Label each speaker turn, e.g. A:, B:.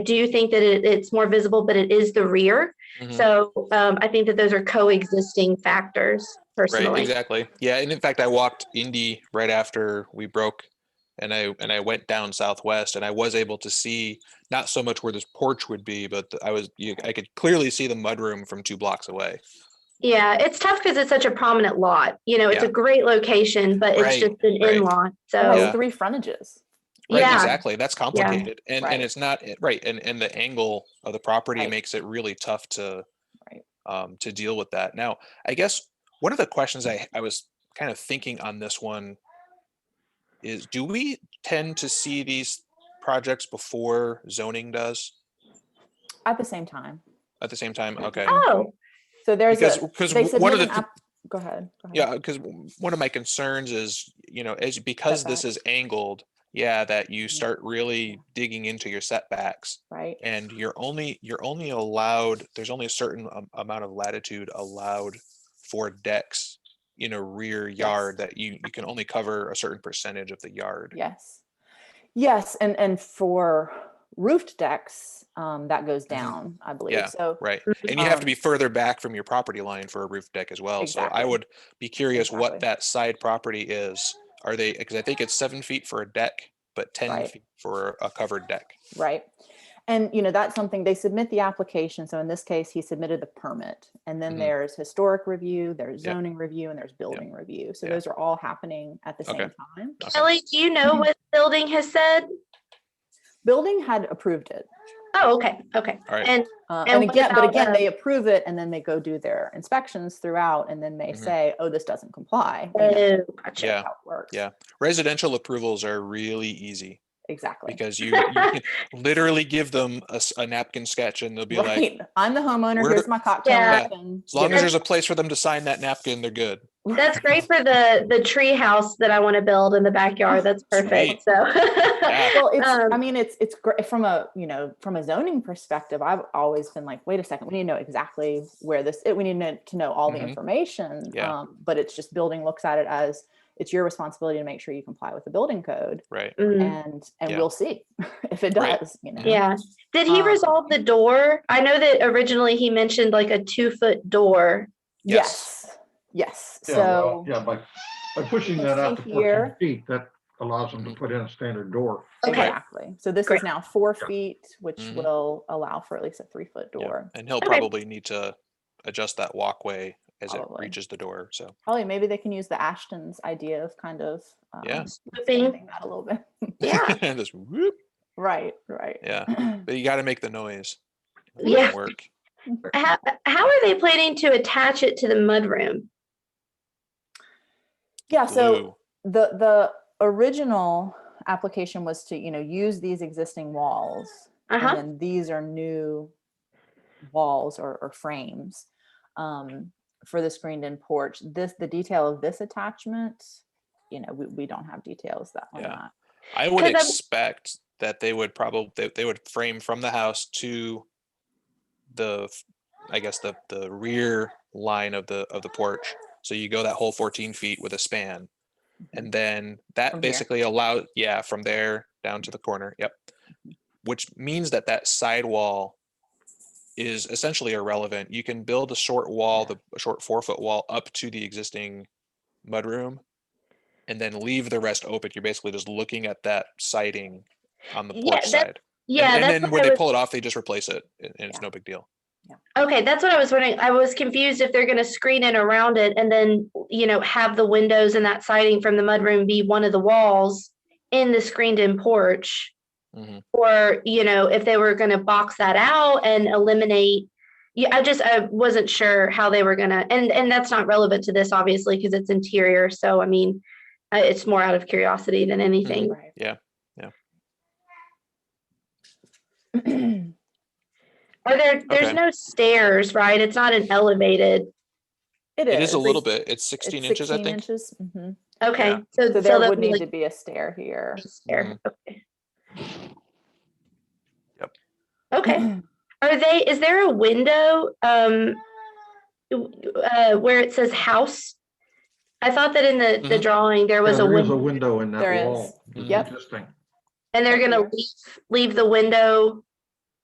A: do think that it, it's more visible, but it is the rear.
B: Mhm.
A: So um, I think that those are coexisting factors
B: Right,
A: personally.
B: exactly. Yeah, and in fact, I walked Indy right after we broke, and I and I went down Southwest, and I was able to see not so much where this porch would be, but the- I was you, I could clearly see the mudroom from two blocks away.
A: Yeah, it's tough because it's such a prominent lot. You know, it's a great location, but it's
B: Right,
A: just an
B: right.
A: in lot.
B: Oh,
A: So
B: Yeah.
C: has three frontages.
B: Right,
A: yeah,
B: exactly. That's complicated, and
C: Right.
B: and it's not eh, right, and and the angle of the property
C: Right.
B: makes it really tough to,
C: Right.
B: um, to deal with that. Now, I guess one of the questions I I was kind of thinking on this one is, do we tend to see these projects before zoning does
C: At the same time.
B: at the same time? Okay,
A: Oh,
C: So there's
B: because
C: a,
B: because
C: they
B: one of
C: submitted
B: the
C: an
B: th-
C: app, go ahead. go ahead.
B: Yeah, because one of my concerns is, you know, as because this is angled, yeah, that you start really digging into your setbacks
C: Right.
B: and you're only, you're only allowed, there's only a certain am- amount of latitude allowed for decks in a rear yard that you, you can only cover a certain percentage of the yard.
C: Yes. Yes, and, and for roofed decks, um, that goes down, I believe.
B: Mm-hmm. Yeah,
C: So,
B: Right. And you have to
C: Um,
B: be further back from your property line for a roof deck as well. So I
C: Exactly.
B: would be curious what
C: Exactly.
B: that side property is. Are they, because I think it's seven feet for a deck, but ten
C: Right.
B: feet for a covered deck.
C: right. And, you know, that's something, they submit the application. So in this case, he submitted the permit. And then
B: Mhm.
C: there's historic review, there's
B: Yep.
C: zoning review, and there's building review. So
B: Yeah.
C: those are all happening at the
B: Okay.
C: same time.
B: Okay.
A: Ellie, do you know what building has said?
C: Building had approved it.
A: Oh, okay, okay.
B: All right.
A: And
C: Uh,
A: And
C: and
A: what
C: again, but
A: about,
C: again,
A: um,
C: they approve it and then they go do their inspections throughout and then they
B: Mhm.
C: say, oh, this doesn't comply. you know,
A: oh,
C: that's
A: gotcha.
B: Yeah.
C: How it works.
B: yeah. Residential approvals are really easy
C: Exactly.
B: because you, you can literally give them a, s- a napkin sketch and they'll be like,
C: Right. I'm the homeowner.
B: "We're
C: Here's
B: the-
C: my cocktail
A: Yeah.
C: napkin.
B: as long
C: get
B: as
C: it."
B: there's a place for them to sign that napkin, they're good.
A: That's great for the the tree house that I want to build in the backyard. That's perfect. So
B: Yeah.
C: Well, it's, I
A: um,
C: mean, it's, it's great from a, you know, from a zoning perspective, I've always been like, wait a second, we need to know exactly where this, we need to know- to know all the
B: Mhm.
C: information.
B: Yeah.
C: Um, But it's just building looks at it as it's your responsibility to make sure you comply with the building code
B: Right.
A: mm,
C: and, and
B: Yeah.
C: we'll see if it
B: Right.
C: does, you know?
A: yeah. Did he
C: Um,
A: resolve the door? I know that originally he mentioned like a two foot door.
B: Yes.
C: Yes, yes.
D: Yeah, well,
C: So,
D: Yeah, by, by pushing
C: can
D: that out
C: see
D: to fourteen
C: here.
D: feet, that allows them to
B: Mhm.
D: put in a standard door.
C: exactly. So this
A: Great.
C: is now four
D: Yeah.
C: feet, which
B: Mhm.
C: will allow for at least a three foot
B: Yeah.
C: door.
B: And he'll
A: Okay.
B: probably need to adjust that walkway as it
C: Probably.
B: reaches the door. So,
C: Probably maybe they can use the Ashton's idea of kind of. um,
B: Yeah.
A: Swooping.
C: expanding That a little bit.
A: Yeah.
B: this whoop,
C: Right, right.
B: yeah. But you got to make the noise. It
A: Yeah.
B: doesn't Work.
A: How, how are they planning to attach it to the mudroom?
C: Yeah, so
B: Glue.
C: the, the original application was to, you know, use these existing walls.
A: Uh
C: And
A: huh.
C: then these are new walls or, or frames um, for the screened-in porch. This, the detail of this attachment, you know, we, we don't have details that on
B: Yeah.
C: that.
B: I would
A: 'Cause I'm-
B: expect that they would probably they, they would frame from the house to the f- I guess the the rear line of the of the porch. So you go that whole 14 feet with a span. And then that
C: From here.
B: basically allows yeah, from there down to the corner. Yep. Which means that that sidewall is essentially irrelevant. You can build a short wall, the a short four foot wall up to the existing mudroom and then leave the rest open. You're basically just looking at that siding on the
A: Yeah,
B: porch
A: that's-
B: side. And-
A: Yeah.
B: and,
A: that's
B: then
A: what
B: when
A: I
B: they
A: was-
B: pull it off, they just replace it, and, and it's
C: Yeah.
B: no big deal.
A: Okay, that's what I was wondering. I was confused if they're going to screen it around it and then, you know, have the windows and that siding from the mudroom be one of the walls in the screened-in porch,
B: Mhm.
A: or, you know, if they were going to box that out and eliminate. Yeah, I just, I wasn't sure how they were gonna, and, and that's not relevant to this, obviously, because it's interior. So, I mean, uh, it's more out of curiosity than anything.
C: Right.
B: Yeah, yeah.
A: Or there, there's
B: Okay.
A: no stairs, right? It's not an elevated.
C: It is.
B: It is a little
C: It's-
B: bit. It's
C: it's
B: 16 inches, I
C: 16
B: think.
C: inches, mhm.
A: Okay, so.
C: So there
A: that
C: would
A: be
C: need
A: like
C: to be a stair here.
A: a stair. Okay.
B: Mm-hmm. Yep.
A: Okay. Are they, is there a window um w- uh where it says house? I thought that in the the
B: Mhm.
A: drawing there
D: Mm-hmm. Yeah,
A: was a
D: There is a
A: window
D: window in
C: There
D: that
C: is.
D: wall. It's
B: Mhm.
C: Yep.
D: Interesting.
A: and they're
C: window
A: gonna
C: here.
A: leave leave the window